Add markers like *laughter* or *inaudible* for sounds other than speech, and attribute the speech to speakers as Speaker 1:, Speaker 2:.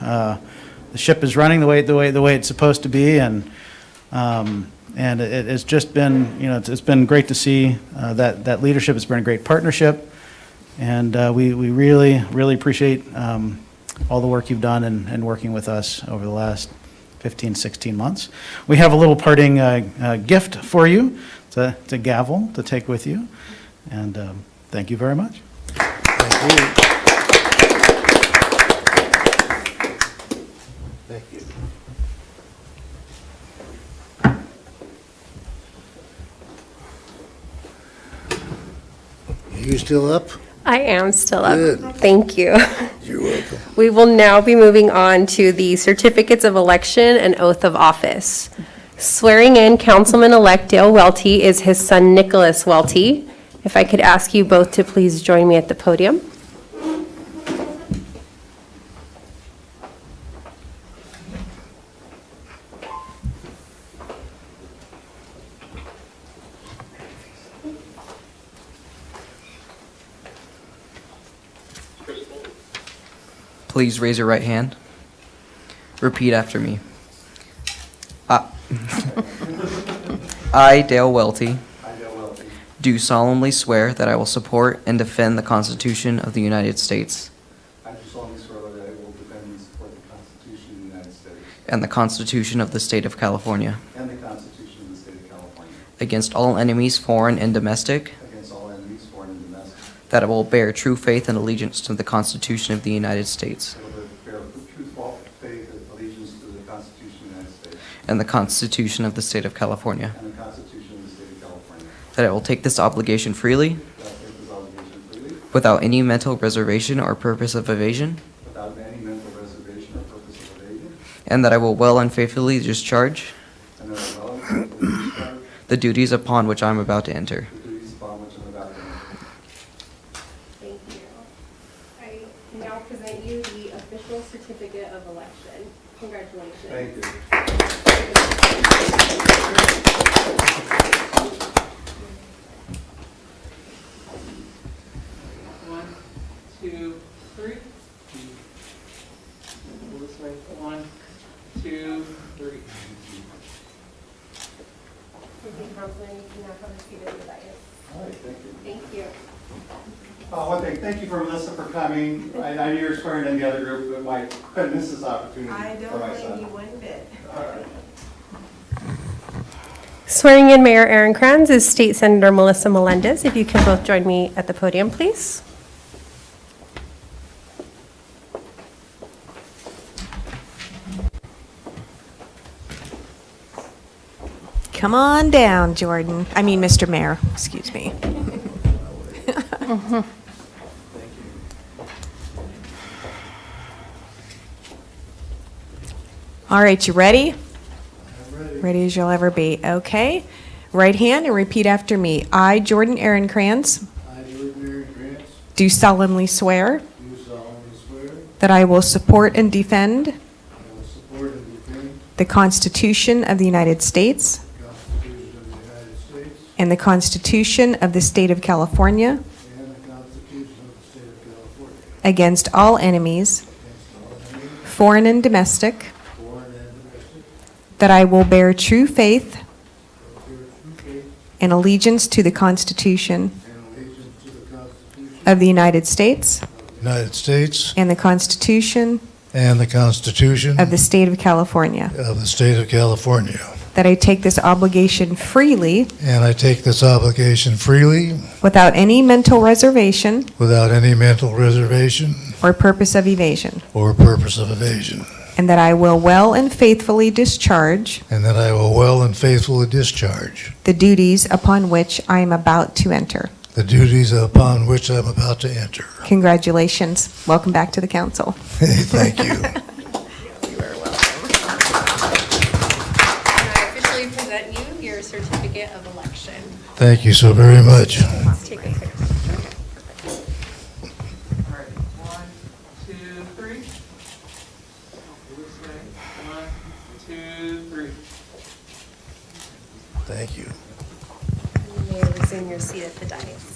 Speaker 1: Uh, The ship is running the way, the way, the way it's supposed to be, and, um, and it, it's just been, you know, it's, it's been great to see uh, that, that leadership. It's been a great partnership, and uh, we, we really, really appreciate um, all the work you've done and, and working with us over the last 15, 16 months. We have a little parting uh, uh, gift for you, it's a, it's a gavel to take with you, and um, thank you very much.
Speaker 2: Thank you. You still up?
Speaker 3: I am still up.
Speaker 2: Good.
Speaker 3: Thank you.
Speaker 2: You're welcome.
Speaker 3: *laughs* We will now be moving on to the certificates of election and oath of office. Swearing in Councilman-elect Dale Welty is his son Nicholas Welty. If I could ask you both to please join me at the podium.
Speaker 4: Please raise your right hand. Repeat after me. I, *laughs* I, Dale Welty,
Speaker 2: I, Dale Welty,
Speaker 4: do solemnly swear that I will support and defend the Constitution of the United States
Speaker 2: I do solemnly swear that I will defend and support the Constitution of the United States
Speaker 4: and the Constitution of the State of California
Speaker 2: and the Constitution of the State of California
Speaker 4: against all enemies, foreign and domestic,
Speaker 2: against all enemies, foreign and domestic,
Speaker 4: that I will bear true faith and allegiance to the Constitution of the United States
Speaker 2: and will bear truthful faith and allegiance to the Constitution of the United States
Speaker 4: and the Constitution of the State of California,
Speaker 2: and the Constitution of the State of California,
Speaker 4: that I will take this obligation freely,
Speaker 2: that I take this obligation freely
Speaker 4: without any mental reservation or purpose of evasion,
Speaker 2: without any mental reservation or purpose of evasion,
Speaker 4: And that I will well and faithfully discharge
Speaker 2: and that I will faithfully discharge
Speaker 4: the duties upon which I am about to enter.
Speaker 2: the duties upon which I am about to enter.
Speaker 3: Thank you. I now present you the official certificate of election. Congratulations.
Speaker 2: Thank you.
Speaker 5: One, two, three. Go this way. One, two, three.
Speaker 3: Thank you, Councilman. You can now have a seat at the dais.
Speaker 2: All right, thank you.
Speaker 3: Thank you.
Speaker 2: Uh, One thing, thank you for Melissa for coming. I I knew you were swearing in the other group, but my, couldn't miss this opportunity
Speaker 6: I
Speaker 2: for
Speaker 6: don't
Speaker 2: my
Speaker 6: blame
Speaker 2: son.
Speaker 6: you one bit.
Speaker 3: Swearing in Mayor Aaron Kranz is State Senator Melissa Melendez. If you can both join me at the podium, please.
Speaker 6: Come on down, Jordan. I mean, Mr. Mayor, excuse me. *laughs* All right, you ready? Ready as you'll ever be. Okay. Right hand and repeat after me. I, Jordan Aaron Kranz,
Speaker 7: I, Jordan Aaron Grant,
Speaker 6: do solemnly swear
Speaker 7: do solemnly swear
Speaker 6: that I will support and defend
Speaker 7: I will support and defend
Speaker 6: the Constitution of the United
Speaker 7: the
Speaker 6: States
Speaker 7: Constitution of the United States
Speaker 6: and the Constitution of the State of California
Speaker 7: and the Constitution of the State of California
Speaker 6: against all enemies,
Speaker 7: against all enemies,
Speaker 6: foreign and domestic,
Speaker 7: foreign and domestic,
Speaker 6: that I will bear true
Speaker 7: that
Speaker 6: faith
Speaker 7: bear true faith
Speaker 6: and allegiance to the Constitution
Speaker 7: and allegiance to the Constitution
Speaker 6: of the United States
Speaker 7: of the United States
Speaker 6: and the Constitution
Speaker 7: and the Constitution
Speaker 6: of the State of California,
Speaker 7: of the State of California.
Speaker 6: that I take this obligation freely
Speaker 7: And I take this obligation freely
Speaker 6: without any mental reservation
Speaker 7: without any mental reservation
Speaker 6: or purpose of evasion,
Speaker 7: or purpose of evasion,
Speaker 6: and that I will well and faithfully discharge
Speaker 7: and that I will well and faithfully discharge
Speaker 6: the duties upon which I am about to enter.
Speaker 7: the duties upon which I'm about to enter. *laughs*
Speaker 6: Congratulations. Welcome back to the council.
Speaker 7: Thank you.
Speaker 8: And I officially present you your certificate of election.
Speaker 7: Thank you so very much.
Speaker 8: Let's take a picture.
Speaker 5: All right. One, two, three. Go this way. One, two, three.
Speaker 7: Thank you.
Speaker 8: And You may resume your seat at the dais.